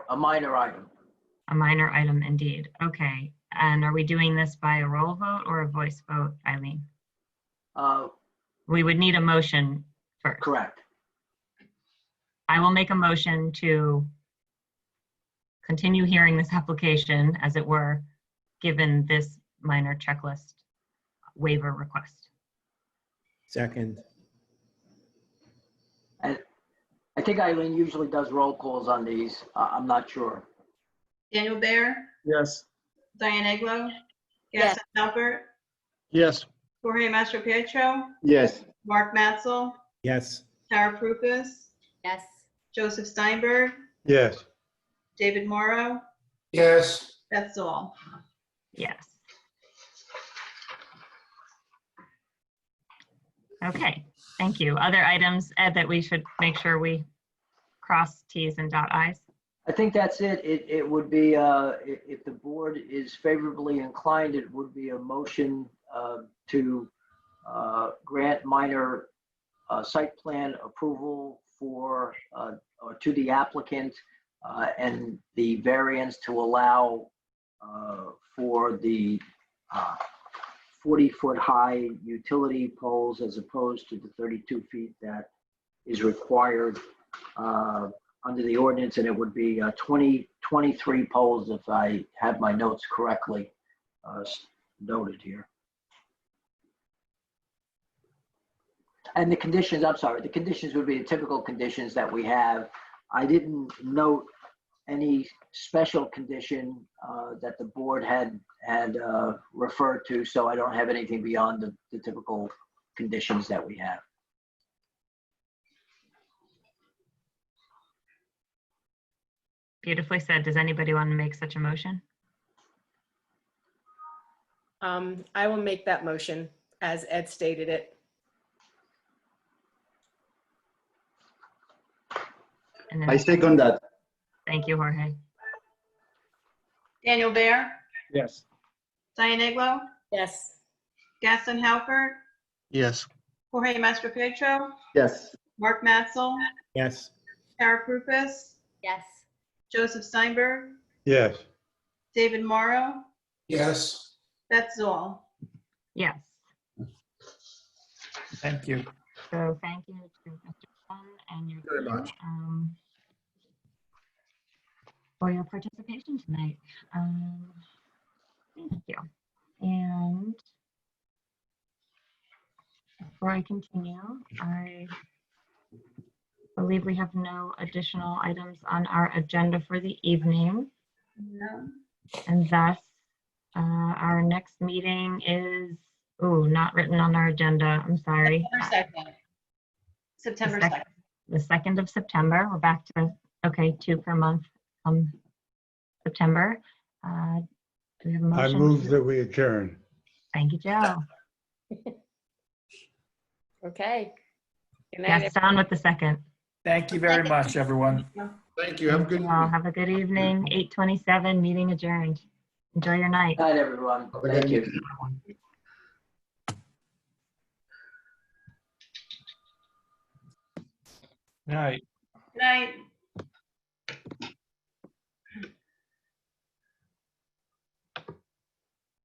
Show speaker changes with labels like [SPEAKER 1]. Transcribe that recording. [SPEAKER 1] a minor item.
[SPEAKER 2] A minor item indeed. Okay. And are we doing this by a roll vote or a voice vote, Eileen?
[SPEAKER 1] Uh,
[SPEAKER 2] We would need a motion first.
[SPEAKER 1] Correct.
[SPEAKER 2] I will make a motion to continue hearing this application, as it were, given this minor checklist waiver request.
[SPEAKER 3] Second,
[SPEAKER 1] I think Eileen usually does roll calls on these. I- I'm not sure.
[SPEAKER 4] Daniel Bayer,
[SPEAKER 5] Yes.
[SPEAKER 4] Diane Aglo,
[SPEAKER 6] Yes.
[SPEAKER 4] Gaston Albert,
[SPEAKER 5] Yes.
[SPEAKER 4] Jorge Mastro Pietro,
[SPEAKER 5] Yes.
[SPEAKER 4] Mark Matzel,
[SPEAKER 3] yes,
[SPEAKER 4] Tara Prupus,
[SPEAKER 6] Yes.
[SPEAKER 4] Joseph Steinberg,
[SPEAKER 5] Yes.
[SPEAKER 4] David Morrow,
[SPEAKER 7] yes,
[SPEAKER 4] Beth Zoll.
[SPEAKER 2] Yes. Okay, thank you. Other items, Ed, that we should make sure we cross Ts and dot Is?
[SPEAKER 1] I think that's it. It, it would be, uh, i- if the board is favorably inclined, it would be a motion uh, to uh, grant minor uh, site plan approval for, uh, or to the applicant uh, and the variance to allow uh, for the 40-foot-high utility poles as opposed to the 32 feet that is required uh, under the ordinance, and it would be uh, 20, 23 poles if I have my notes correctly uh, s- noted here. And the conditions, I'm sorry, the conditions would be the typical conditions that we have. I didn't note any special condition uh, that the board had, had uh, referred to, so I don't have anything beyond the the typical conditions that we have.
[SPEAKER 2] Beautifully said. Does anybody want to make such a motion?
[SPEAKER 6] Um, I will make that motion as Ed stated it.
[SPEAKER 2] And
[SPEAKER 8] I
[SPEAKER 2] then,
[SPEAKER 8] second that.
[SPEAKER 2] thank you, Jorge.
[SPEAKER 4] Daniel Bayer,
[SPEAKER 5] Yes.
[SPEAKER 4] Diane Aglo,
[SPEAKER 6] Yes.
[SPEAKER 4] Gaston Halbert,
[SPEAKER 5] Yes.
[SPEAKER 4] Jorge Mastro Pietro,
[SPEAKER 8] Yes,
[SPEAKER 4] Mark Matzel,
[SPEAKER 3] yes,
[SPEAKER 4] Tara Prupus,
[SPEAKER 6] Yes.
[SPEAKER 4] Joseph Steinberg,
[SPEAKER 5] Yes.
[SPEAKER 4] David Morrow,
[SPEAKER 7] yes,
[SPEAKER 4] Beth Zoll.
[SPEAKER 2] Yes.
[SPEAKER 5] Thank you.
[SPEAKER 2] So thank you to Mr. Sun and your.
[SPEAKER 7] Very
[SPEAKER 2] team,
[SPEAKER 7] much.
[SPEAKER 2] um, For your participation tonight. Um, Thank you. And before I continue, I believe we have no additional items on our agenda for the evening.
[SPEAKER 4] No.
[SPEAKER 2] And thus, uh, our next meeting is, oh, not written on our agenda. I'm sorry.
[SPEAKER 4] September second. September
[SPEAKER 2] Sec-
[SPEAKER 4] second.
[SPEAKER 2] the second of September. We're back to, okay, two per month from September. Uh, Do we have a
[SPEAKER 9] I
[SPEAKER 2] motion?
[SPEAKER 9] move that we adjourn.
[SPEAKER 2] Thank you, Joe.
[SPEAKER 6] Okay. Good night,
[SPEAKER 2] Gaston with the second.
[SPEAKER 5] Thank you very much, everyone.
[SPEAKER 7] thank you, have a good.
[SPEAKER 2] Thank you all. Have a good evening. 8:27, meeting adjourned. Enjoy your night.
[SPEAKER 1] Night, everyone.
[SPEAKER 7] Have a good
[SPEAKER 1] Thank you.
[SPEAKER 7] evening.
[SPEAKER 5] All right.
[SPEAKER 4] Good night.